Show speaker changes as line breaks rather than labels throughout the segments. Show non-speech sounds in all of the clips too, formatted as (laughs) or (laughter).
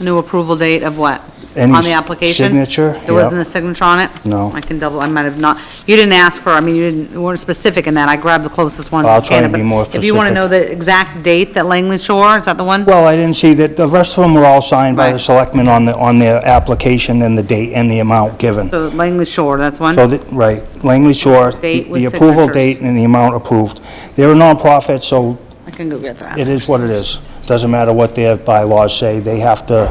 New approval date of what?
Any
On the application?
signature?
There wasn't
Yep.
a signature on it?
No.
I can double, I might have not, you didn't ask for, I mean, you didn't, you weren't specific in that, I grabbed the closest one.
I'll
to
try and
Canada,
be more
but If you want to know
specific.
the exact date that Langley Shore, is that the one?
Well, I didn't see that, the rest of them were all signed by the
Right.
selectmen on the, on their application and the date and the amount given.
So Langley Shore, that's one?
So, that- right, Langley Shore,
Date with
the approval
signatures.
date and the amount approved. They're a nonprofit, so
I can go get that.
it is what it is. Doesn't matter what their bylaws say, they have to,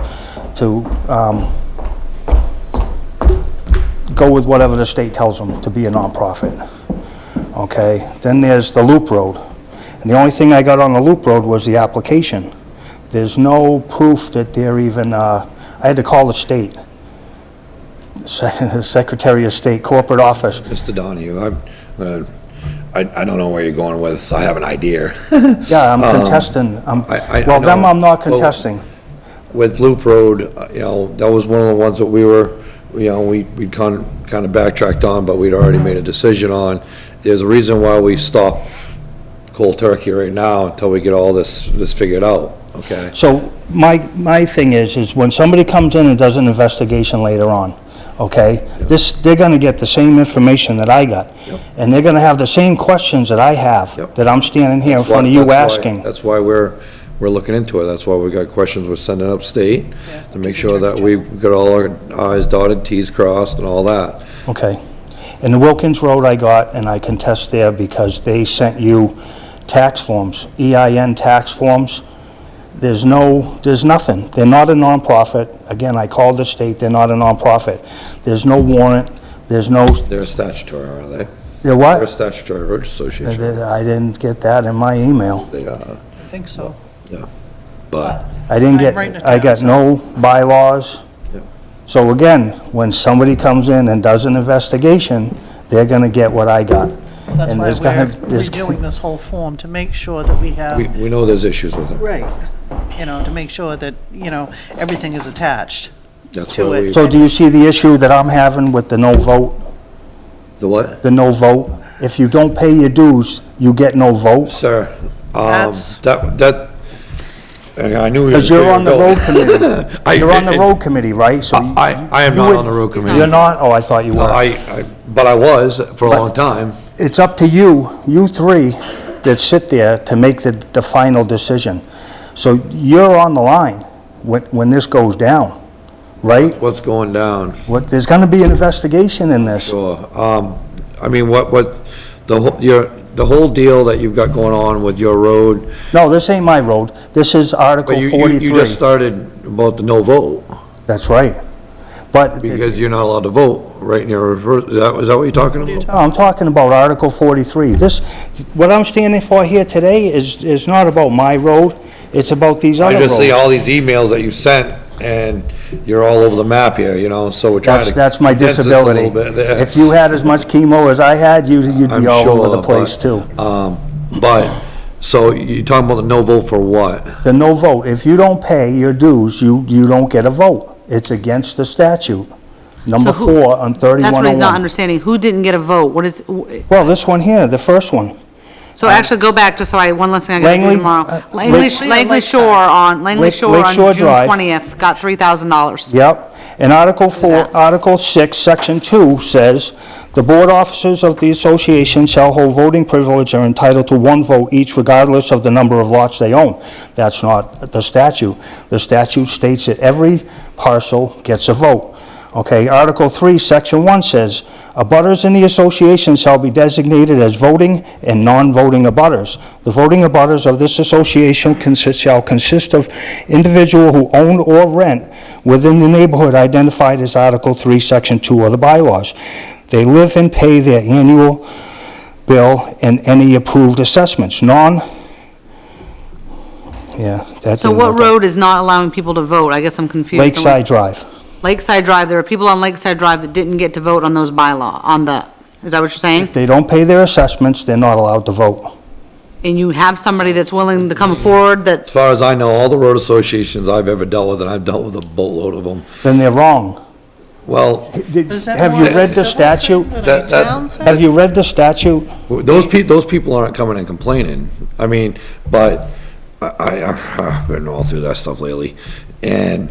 to um, go with whatever the state tells them to be a nonprofit. Okay? Then there's the Loop Road. And the only thing I got on the Loop Road was the application. There's no proof that they're even, uh, I had to call the state, (laughs) Se- Secretary of State Corporate Office,
Mr. Donahue, I'm, uh, I, I don't know where you're going with this, I have
(laughs)
an idea.
Yeah, I'm contesting. I'm-
Um, I- I- I
Well, them
know.
I'm not
Well-
contesting.
With Loop Road, uh, you know, that was one of the ones that we were, you know, we, we kind of, kind of backtracked on, but we'd already made a decision on. There's a reason why we stopped cold turkey right now until we get all this, this figured out, okay?
So my, my thing is, is when somebody comes in and does an investigation later on, okay? This, they're gonna get the same information that I got.
Yep.
And they're gonna have the same questions that I have,
Yep.
that I'm standing here in front of
That's
you
why-
asking.
That's why we're, we're looking into it, that's why we got questions we're sending upstate, to make sure that we've got all our i's dotted, t's crossed and all that.
Okay. And the Wilkins Road I got, and I contest there because they sent you tax forms, EIN tax forms. There's no, there's nothing. They're not a nonprofit. Again, I called the state, they're not a nonprofit. There's no warrant, there's no,
They're statutory, aren't they?
there
They're a
what?
statutory road association.
I didn't get that in my email.
They are,
I think so.
but,
I didn't
I'm
get,
writing it
I got
down,
no bylaws.
Yeah.
So again, when somebody comes in and does an investigation, they're gonna get what I got.
That's
And
why
there's gonna-
we're
there's-
redoing this whole form to make sure that we
we,
have,
we know there's issues with it.
right, you know, to make sure that, you know, everything is attached.
That's
To
why
it.
we,
So do you see the issue that I'm having with the no vote,
the what?
the no vote? If you don't pay your dues, you get no vote?
Sir, um,
That's-
that, that, I knew you were
Because you're on the road committee.
(laughs) I-
You're on the
I-
road committee, right? So you-
I, I am
you
not
would-
on the road committee.
You're not? Oh, I thought you
No, I,
were.
I, but I was for a long time.
It's up to you, you three that sit there to make the, the final decision. So you're on the line when, when this goes down, right?
What's going down?
What, there's gonna be an investigation in this.
Sure. Um, I mean, what, what, the whole, your, the whole deal that you've got going on with your road.
No, this ain't my road. This is Article
But you, you, you just
43.
started about the no vote,
That's right. But it's-
because you're not allowed to vote, right, in your, rever- is that, is that what you're talking about?
No, I'm talking about Article 43. This, what I'm standing for here today is, is not about my road, it's about these other
I just see
roads.
all these emails that you sent, and you're all over the map here, you know, so we're trying
That's,
to.
that's my
condense this a
disability.
little bit there.
If you had as much chemo as I had, you'd, you'd
I'm
be all over
sure,
the place too.
but, Um, but, so you're talking about the no vote for what?
The no vote, if you don't pay your dues, you, you don't get a vote. It's against the statute. Number
So who-
four on
That's what he's not
3101.
understanding, who didn't get a vote, what is,
Well, this one here, the first one.
so actually go back, just so I, one last thing I gotta do
Uh, Langley,
tomorrow.
uh,
Langley,
Lake-
Langley Shore on, Langley
Lake-
Shore
Lake
on
Shore
June
Drive.
twentieth got three thousand dollars.
Yep. And Article 4,
that.
Article 6, Section 2 says, "The board officers of the association shall hold voting privilege and are entitled to one vote each regardless of the number of lots they own." That's not the statute. The statute states that every parcel gets a vote. Okay, Article 3, Section 1 says, "Abutters in the association shall be designated as voting and non-voting abutters. The voting abutters of this association consist, shall consist of individual who own or rent within the neighborhood identified as Article 3, Section 2 of the bylaws. They live and pay their annual bill and any approved assessments, non..." Yeah, that
So
didn't
what
work out.
road is not allowing people to vote? I guess I'm confused. on what's-
Lakeside Drive.
Lakeside Drive, there are people on Lakeside Drive that didn't get to vote on those bylaw, on the, is that what you're saying?
They don't pay their assessments, they're not allowed to vote.
And you have somebody that's willing to come forward that
As far as I know, all the road associations I've ever dealt with, and I've dealt with a boatload of them,
then they're wrong.
well,
Did-
Is that
Have
more
you
a
read the
civil
statute?
thing than a
That- that-
town thing?
Have you read the statute?
Those peo, those people aren't coming and complaining. I mean, but I, I, I've been all through that stuff lately. And